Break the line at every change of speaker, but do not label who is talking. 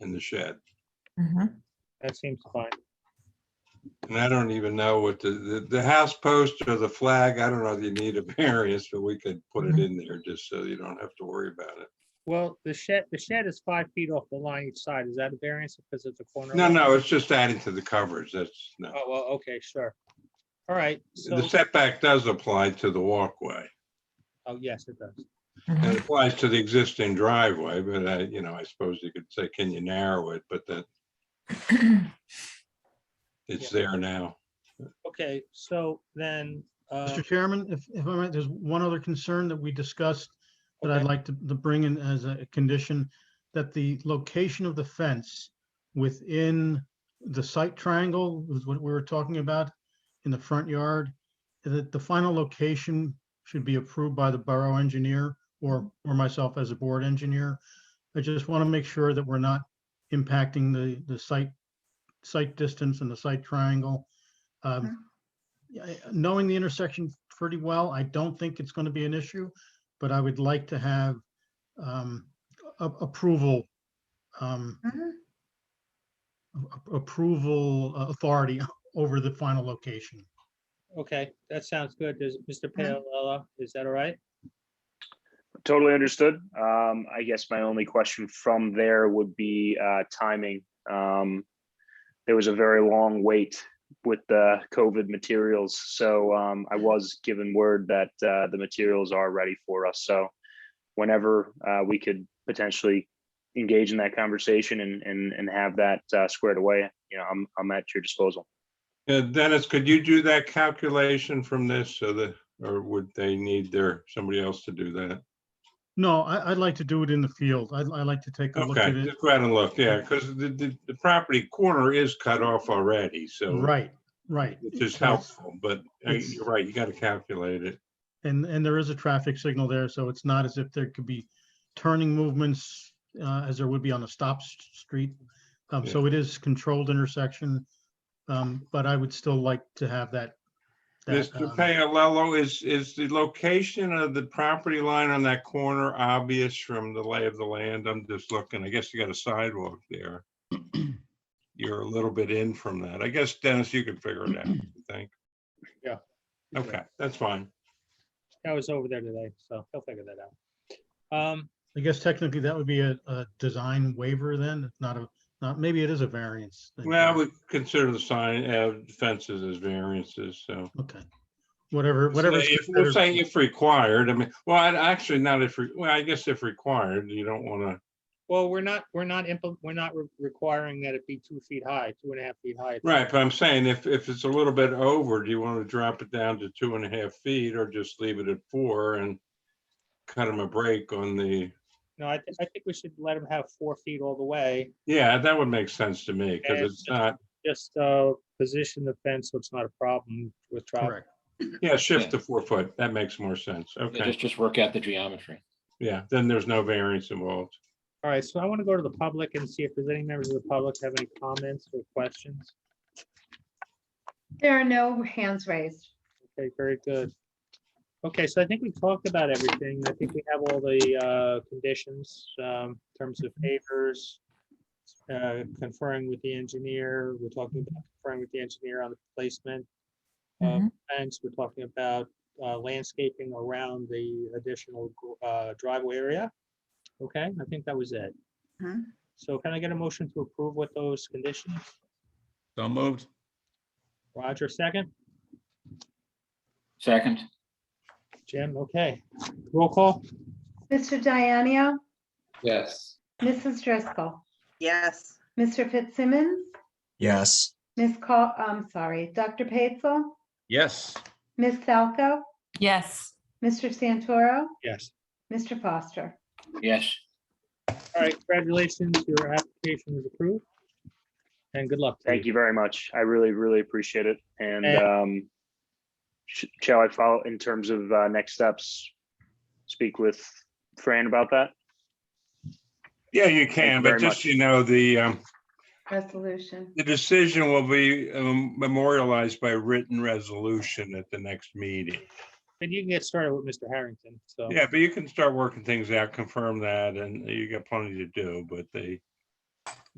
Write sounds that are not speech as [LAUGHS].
in the shed.
Mhm.
That seems fine.
And I don't even know what the, the, the house post or the flag, I don't know if you need a [LAUGHS] variance, but we could put it in there just so you don't have to worry about it.
Well, the shed, the shed is five feet off the line each side. Is that a variance because it's a corner?
No,
lot?
no, it's just adding to the coverage. That's, no.
Oh, well, okay, sure. All right, so,
The setback does apply to the walkway.
oh, yes, it does.
It
Mhm.
applies to the existing driveway, but I, you know, I suppose you could say, can you narrow it? But that it's there now.
Okay, so then, uh,
Mr. Chairman, if, if I might, there's one other concern that we discussed that I'd
Okay.
like to, to bring in as a condition, that the location of the fence within the site triangle was what we were talking about in the front yard, that the final location should be approved by the borough engineer or, or myself as a board engineer. I just want to make sure that we're not impacting the, the site, site distance and the site triangle. Um,
Mhm.
yeah, I- knowing the intersection pretty well, I don't think it's going to be an issue, but I would like to have um, a- approval, um,
Mhm.
a- approval uh, authority [LAUGHS] over the final location.
okay, that sounds good. Does, Mr.
Mm-hmm.
Paola, is that all right?
Totally understood. Um, I guess my only question from there would be uh, timing. Um, there was a very long wait with the COVID materials, so um, I was given word that uh, the materials are ready for us. So whenever uh, we could potentially engage in that conversation and and, and have that uh, squared away, you know, I'm I'm at your disposal.
Uh, Dennis, could you do that calculation from this so that, or would they need their, somebody else to do that?
No, I, I'd like to do it in the field. I'd, I'd like to take a look
Okay,
at it.
just go ahead and look, yeah, because the, the, the property corner is cut off already, so.
Right, right.
Which is
So it's-
helpful, but uh,
it's-
you're right, you gotta calculate it.
And, and there is a traffic signal there, so it's not as if there could be turning movements uh, as there would be on a stop s- street. Um,
Yeah.
So it is controlled intersection, um, but I would still like to have that. that,
Mr.
um,
Paolello, is, is the location of the property line on that corner obvious from the lay of the land? I'm just looking, I guess you got a sidewalk
[CLEARS THROAT]
there. You're a little bit in from that. I guess Dennis, you can figure
[CLEARS THROAT]
it out, you think?
Yeah.
Okay, that's fine.
I was over there today, so he'll figure that out. Um,
I guess technically that would be a, a design waiver then, not a, not, maybe it is a variance. then,
Well, we
correct?
consider the sign, uh, fences as variances, so.
Okay, whatever, whatever.
Say If we're saying if required, I mean, well, I'd actually not if, re- well, I guess if required, you don't want to,
well, we're not, we're not, impl- we're not re- requiring that it be two feet high, two and a half feet high.
right, but I'm saying if, if it's a little bit over, do you want to drop it down to two and a half feet or just leave it at four and cut him a break on the,
No, I, thi- I think we should let him have four feet all the way.
yeah, that would make sense to me because
And-
it's not,
Just, uh, position the fence so it's not a problem with traffic.
Correct.
yeah, shift to four foot. That makes more sense.
Yeah,
Okay,
Just, just work out the geometry.
yeah, then there's no variance involved.
All right, so I want to go to the public and see if there's any members of the public have any comments or questions.
There are no hands raised.
Okay, very good. Okay, so I think we talked about everything. I think we have all the uh, conditions um, in terms of favors, uh, conferring with the engineer, we're talking about conferring with the engineer on the placement. uh,
Mhm.
Fence, we're talking about uh, landscaping around the additional gr- uh, driveway area. Okay, I think that was it.
Mhm.
So can I get a motion to approve with those conditions?
So moved.
Roger, second?
Second,
Jim, okay. Roll call?
Mr. Dianio,
yes,
Mrs. Driscoll,
Yes,
Mr. Fitzsimmons,
Yes,
Ms. Call, I'm sorry, Dr. Patel,
Yes.
Ms. Falco,
Yes.
Mr. Santoro,
Yes.
Mr. Foster.
yes.
All right, congratulations, your application is approved. And good luck. to
Thank you very much. I really, really appreciate it. And
And-
um, sh- shall I follow in terms of uh, next steps? Speak with Fran about that?
Yeah, you
you
can, but
very
just,
much.
so you know, the, um,
Resolution.
The decision will be um, memorialized by written resolution at the next meeting.
And you can get started with Mr. Harrington, so.
Yeah, but you can start working things out, confirm that, and you got plenty to do, but they,